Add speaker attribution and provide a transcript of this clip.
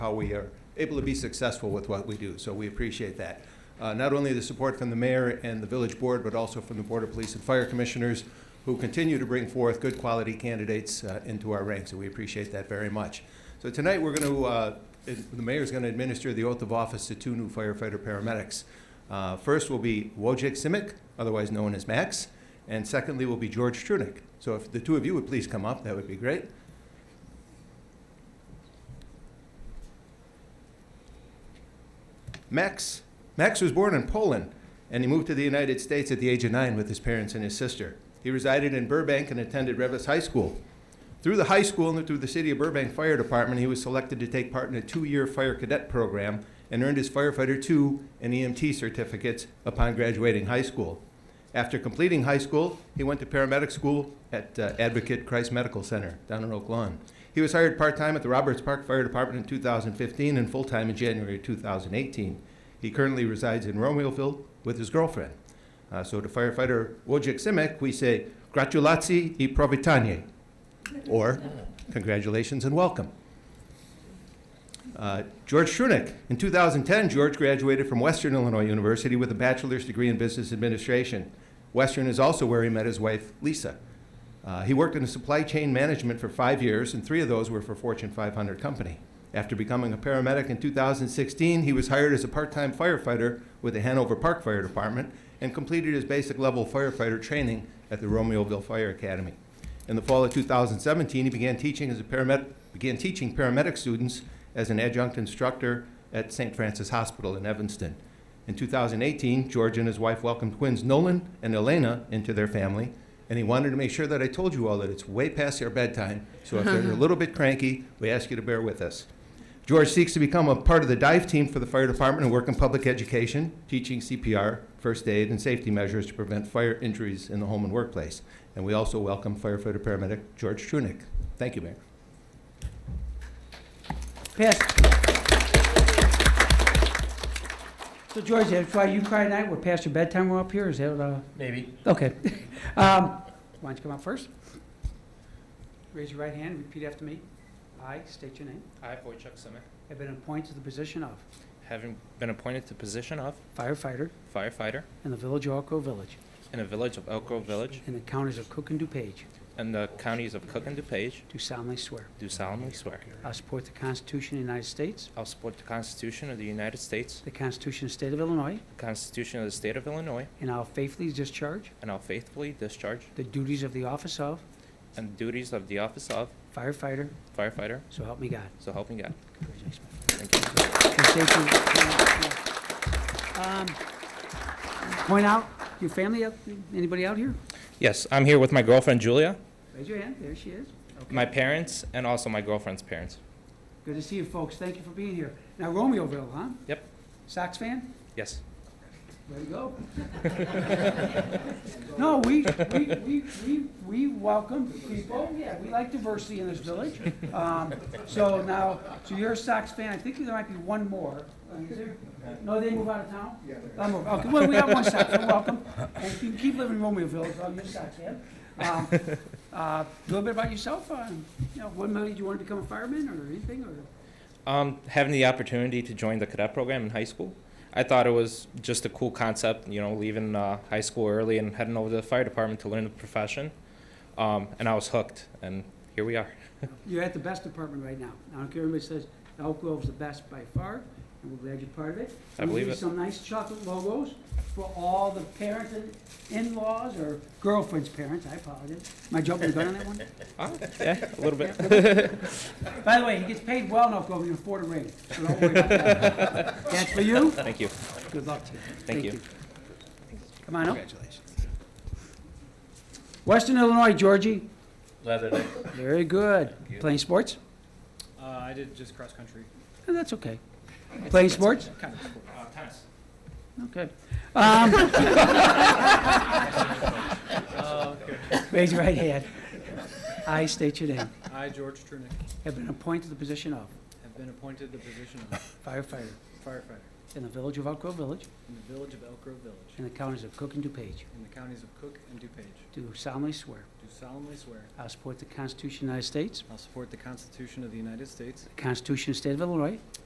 Speaker 1: how we are able to be successful with what we do. So we appreciate that. Uh, Not only the support from the mayor and the village board, but also from the Board of Police and Fire Commissioners, who continue to bring forth good quality candidates uh, into our ranks, and we appreciate that very much. So tonight, we're going to, the mayor's going to administer the oath of office to two new firefighter paramedics. Uh, First will be Wojciech Simic, otherwise known as Max, and secondly will be George Trunick. So if the two of you would please come up, that would be great. Max. Max was born in Poland, and he moved to the United States at the age of nine with his parents and his sister. He resided in Burbank and attended Revis High School. Through the high school and through the City of Burbank Fire Department, he was selected to take part in a two year fire cadet program and earned his Firefighter II and EMT certificates upon graduating high school. After completing high school, he went to paramedic school at uh, Advocate Christ Medical Center down in Oak Lawn. He was hired part time at the Roberts Park Fire Department in 2015 and full time in January 2018. He currently resides in Romeoville with his girlfriend. Uh, so to firefighter Wojciech Simek, we say, Gratulacji i Provitanie, or congratulations and welcome. Uh, George Shrunick. In 2010, George graduated from Western Illinois University with a bachelor's degree in business administration. Western is also where he met his wife, Lisa. Uh, he worked in supply chain management for five years, and three of those were for Fortune 500 company. After becoming a paramedic in 2016, he was hired as a part-time firefighter with the Hanover Park Fire Department and completed his basic level firefighter training at the Romeoville Fire Academy. In the fall of 2017, he began teaching as a paramedic, began teaching paramedic students as an adjunct instructor at St. Francis Hospital in Evanston. In 2018, George and his wife welcomed twins Nolan and Elena into their family, and he wanted to make sure that I told you all that it's way past their bedtime, so if they're a little bit cranky, we ask you to bear with us. George seeks to become a part of the dive team for the fire department and work in public education, teaching CPR, first aid, and safety measures to prevent fire injuries in the home and workplace. And we also welcome firefighter paramedic George Trunick. Thank you, Mayor.
Speaker 2: Pass. So George, that's why you cry tonight, we're past your bedtime, we're up here, is that, uh,
Speaker 3: Maybe.
Speaker 2: okay. Um, Why don't you come up first? Raise your right hand, repeat after me. I state your name.
Speaker 3: I, Wojciech Simic,
Speaker 2: Have been appointed to the position of
Speaker 3: having been appointed to position of
Speaker 2: firefighter
Speaker 3: firefighter
Speaker 2: in the village of Elk Grove Village
Speaker 3: in the village of Elk Grove Village
Speaker 2: in the counties of Cook and DuPage,
Speaker 3: and the counties of Cook and DuPage,
Speaker 2: do solemnly swear.
Speaker 3: do solemnly swear.
Speaker 2: I support the Constitution of the United States,
Speaker 3: I'll support the Constitution of the United States,
Speaker 2: the Constitution of the State of Illinois,
Speaker 3: the Constitution of the State of Illinois,
Speaker 2: and I'll faithfully discharge
Speaker 3: and I'll faithfully discharge
Speaker 2: the duties of the office of
Speaker 3: the duties of the office of
Speaker 2: firefighter,
Speaker 3: firefighter,
Speaker 2: so help me God.
Speaker 3: so help me God.
Speaker 2: Congratulations. my friend.
Speaker 3: Thank you.
Speaker 2: Okay, thank you. Um, Point out, your family, up- anybody out here?
Speaker 3: Yes, I'm here with my girlfriend Julia,
Speaker 2: Raise your hand, there she is. Okay.
Speaker 3: my parents, and also my girlfriend's parents.
Speaker 2: Good to see you folks, thank you for being here. Now Romeoville, huh?
Speaker 3: Yep.
Speaker 2: Sox fan?
Speaker 3: Yes.
Speaker 2: Way to go. No, we, we, we, we, we welcome people, yeah, we like diversity in this village. Um, So now, so you're a Sox fan, I think there might be one more. Uh, Is there? No, they move out of town? Yeah. Okay, well, we have one Sox, fan, welcome. And you can keep living in Romeoville, so you're a Sox fan. Um, uh, A little bit about yourself, uh, you know, what made you want to become a fireman or anything, or?
Speaker 3: Um, having the opportunity to join the cadet program in high school, I thought it was just a cool concept, you know, leaving uh, high school early and heading over to the fire department to learn the profession. Um, and I was hooked, and here we are.
Speaker 2: You're at the best department right now. I don't care if anybody says Elk Grove's the best by far, and we're glad you're part of it.
Speaker 3: I believe
Speaker 2: We'll
Speaker 3: it.
Speaker 2: give you some nice chocolate logos for all the parents and in-laws or girlfriend's parents, I apologize. Am I jumping the gun on that one?
Speaker 3: Ah, yeah, a little bit.
Speaker 2: By the way, he gets paid well enough, Grove, you can afford a ring, so don't worry about that. That's for you,
Speaker 3: Thank you.
Speaker 2: good luck to you.
Speaker 3: you.
Speaker 2: Come on up.
Speaker 1: Congratulations.
Speaker 2: Western Illinois, Georgie,
Speaker 4: Leatherneck.
Speaker 2: very good. Playing sports?
Speaker 5: Uh, I did just cross country.
Speaker 2: Oh, That's okay. Playing sports?
Speaker 5: Kind of sport.
Speaker 3: Uh, tennis.
Speaker 2: Okay. Oh, Um,
Speaker 5: Uh,
Speaker 2: Raise your right hand. I state your name.
Speaker 5: I, George Trunick,
Speaker 2: Have been appointed to the position of
Speaker 5: have been appointed the position of
Speaker 2: firefighter
Speaker 5: firefighter
Speaker 2: in the village of Elk Grove Village,
Speaker 5: in the village of Elk Grove Village,
Speaker 2: in the counties of Cook and DuPage,
Speaker 5: in the counties of Cook and DuPage,
Speaker 2: do solemnly swear
Speaker 5: do solemnly swear
Speaker 2: I will support the Constitution of the United States,
Speaker 5: I'll support the Constitution of the United States,
Speaker 2: the Constitution of the State of Illinois,